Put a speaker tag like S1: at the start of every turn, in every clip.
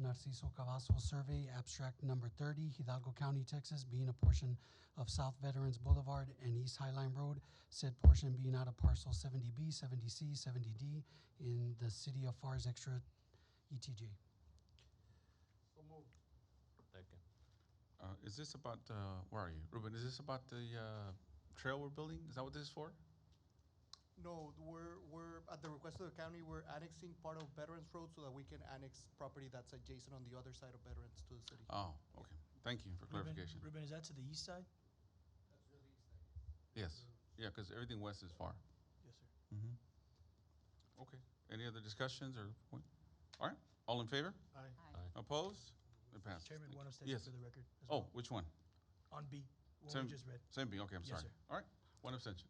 S1: Narciso Cavazo Survey, abstract number 30, Hidalgo County, Texas, being a portion of South Veterans Boulevard and East Highline Road, said portion being out of parcel 70B, 70C, 70D in the city of FAR's extra E ETJ.
S2: So moved.
S3: Second.
S4: Uh, is this about, uh, where are you? Ruben, is this about the, uh, trail we're building? Is that what this is for?
S2: No, we're, we're, at the request of the county, we're annexing part of Veterans Road so that we can annex property that's adjacent on the other side of Veterans to the city.
S4: Oh, okay. Thank you for
S5: Ruben-
S4: clarification.
S5: Ruben, is that to the east side?
S4: Yes, yeah, because everything west is far.
S5: Yes, sir.
S4: Mm-hmm. Okay, any other discussions or point? All right, all in favor?
S5: Aye.
S4: Opposed? It passes.
S5: Chairman,
S4: Thank
S5: one
S4: you.
S5: abstention
S4: Yes.
S5: for the record as
S4: Oh,
S5: well.
S4: which one?
S5: On B, what
S4: Seven-
S5: we just read.
S4: Same B, okay, I'm
S5: Yes,
S4: sorry.
S5: sir.
S4: All right, one abstention.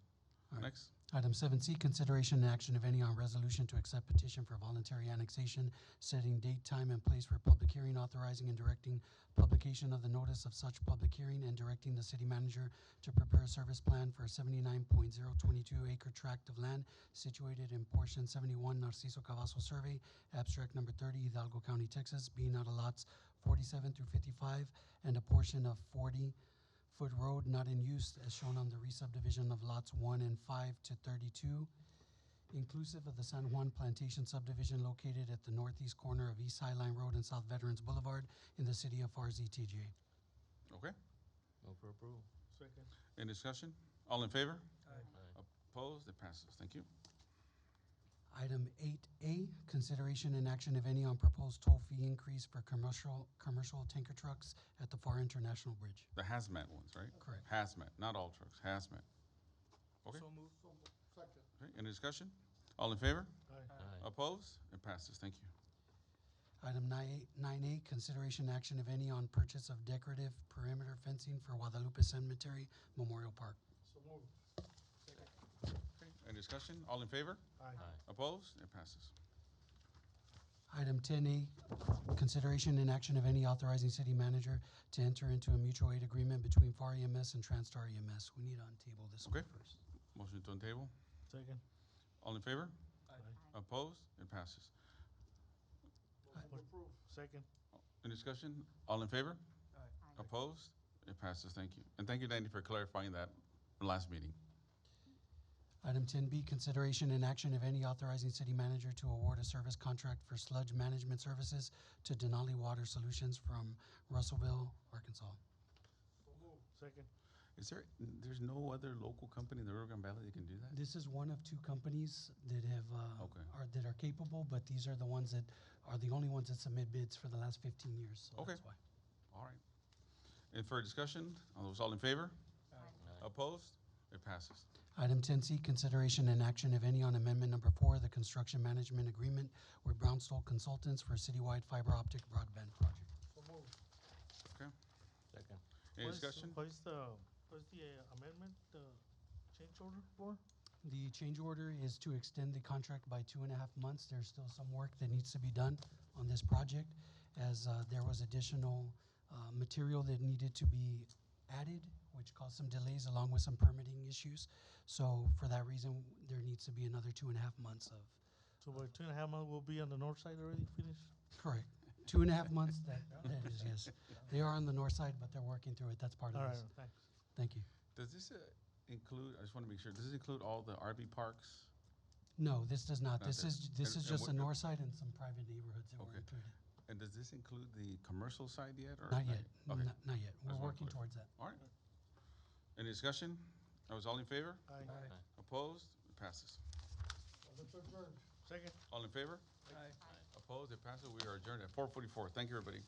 S1: All right.
S4: Next,
S1: Item seven C, consideration and action, if any, on resolution to accept petition for voluntary annexation, setting date, time, and place for public hearing, authorizing and directing publication of the notice of such public hearing, and directing the city manager to prepare a service plan for a seventy-nine point zero twenty-two acre tract of land situated in portion seventy-one Narciso Cavazo Survey, abstract number thirty, Hidalgo County, Texas, being out of lots forty-seven through fifty-five, and a portion of forty Foot Road not in use as shown on the re-subdivision of lots one and five to thirty-two, inclusive of the San Juan Plantation subdivision located at the northeast corner of East Highline Road and South Veterans Boulevard in the city of RZTJ.
S4: okay,
S3: Move for approval.
S2: Second.
S4: any discussion? All in favor?
S3: Aye.
S4: Opposed? It passes, thank you.
S1: Item eight A, consideration and action, if any, on proposed toll fee increase for commercial, commercial tanker trucks at the FAR International Bridge.
S4: The hazmat ones, right?
S1: Correct.
S4: Hazmat, not all trucks, hazmat. Okay.
S5: So moved.
S2: Second.
S4: Okay, any discussion? All in favor?
S2: Aye.
S3: Aye.
S4: Opposed? It passes, thank you.
S1: Item nine A- nine A, consideration action, if any, on purchase of decorative perimeter fencing for Guadalupe Cemetery Memorial Park.
S2: So moved.
S4: Okay, any discussion? All in favor?
S3: Aye.
S4: Opposed? It passes.
S1: Item ten E, consideration and action of any authorizing city manager to enter into a mutual aid agreement between FAR EMS E and Transtar EMS. We need to untable this one
S4: Okay.
S1: first.
S4: Motion to untable.
S5: Second.
S4: All in favor?
S5: Aye.
S4: Opposed? It passes.
S2: approved.
S5: Second.
S4: Any discussion? All in favor?
S5: Aye.
S6: Aye.
S4: Opposed? It passes. Thank you. And thank you, Danny, for clarifying that last meeting.
S1: Item ten B, consideration and action of any authorizing city manager to award a service contract for sludge management services to Denali Water Solutions from Russellville, Arkansas.
S5: Second.
S4: Is there, there's no other local company in the Rio Grande Valley that can do that?
S1: This is one of two companies that have, uh,
S4: Okay.
S1: are, that are capable, but these are the ones that are the only ones that submit bids for the last fifteen years, so
S4: Okay.
S1: that's why.
S4: All right. And for discussion, all those all in favor? Opposed? It passes.
S1: Item ten C, consideration and action, if any, on amendment number four, the construction management agreement with Brownstone Consultants for citywide fiber optic broadband project.
S2: So moved.
S3: Second.
S4: Any discussion?
S7: What is the, what is the uh, amendment, the change order for?
S1: The change order is to extend the contract by two and a half months. There's still some work that needs to be done on this project as uh, there was additional uh, material that needed to be added, which caused some delays along with some permitting issues. So for that reason, there needs to be another two and a half months of
S7: So by two and a half months, we'll be on the north side already finished?
S1: Correct. Two and a half months, that, that is, yes. They are on the north side, but they're working through it. That's part
S7: All
S1: of
S7: right,
S1: this.
S7: thanks.
S1: Thank you.
S4: Does this uh, include, I just want to make sure, does this include all the RV parks?
S1: No, this does not.
S4: Not
S1: This
S4: there.
S1: is, this is
S4: And- and
S1: just
S4: what-
S1: the north side and some private neighborhoods that were
S4: Okay.
S1: included.
S4: And does this include the commercial side yet? or
S1: Not yet,
S4: Okay.
S1: not, not yet. We're
S4: wanna
S1: working
S4: clear.
S1: towards that.
S4: All right. Any discussion? That was all in favor?
S7: Aye.
S4: Opposed? It passes.
S7: Second.
S4: All in favor?
S7: Aye.
S4: Opposed? It passes. We are adjourned at four forty-four. Thank you, everybody.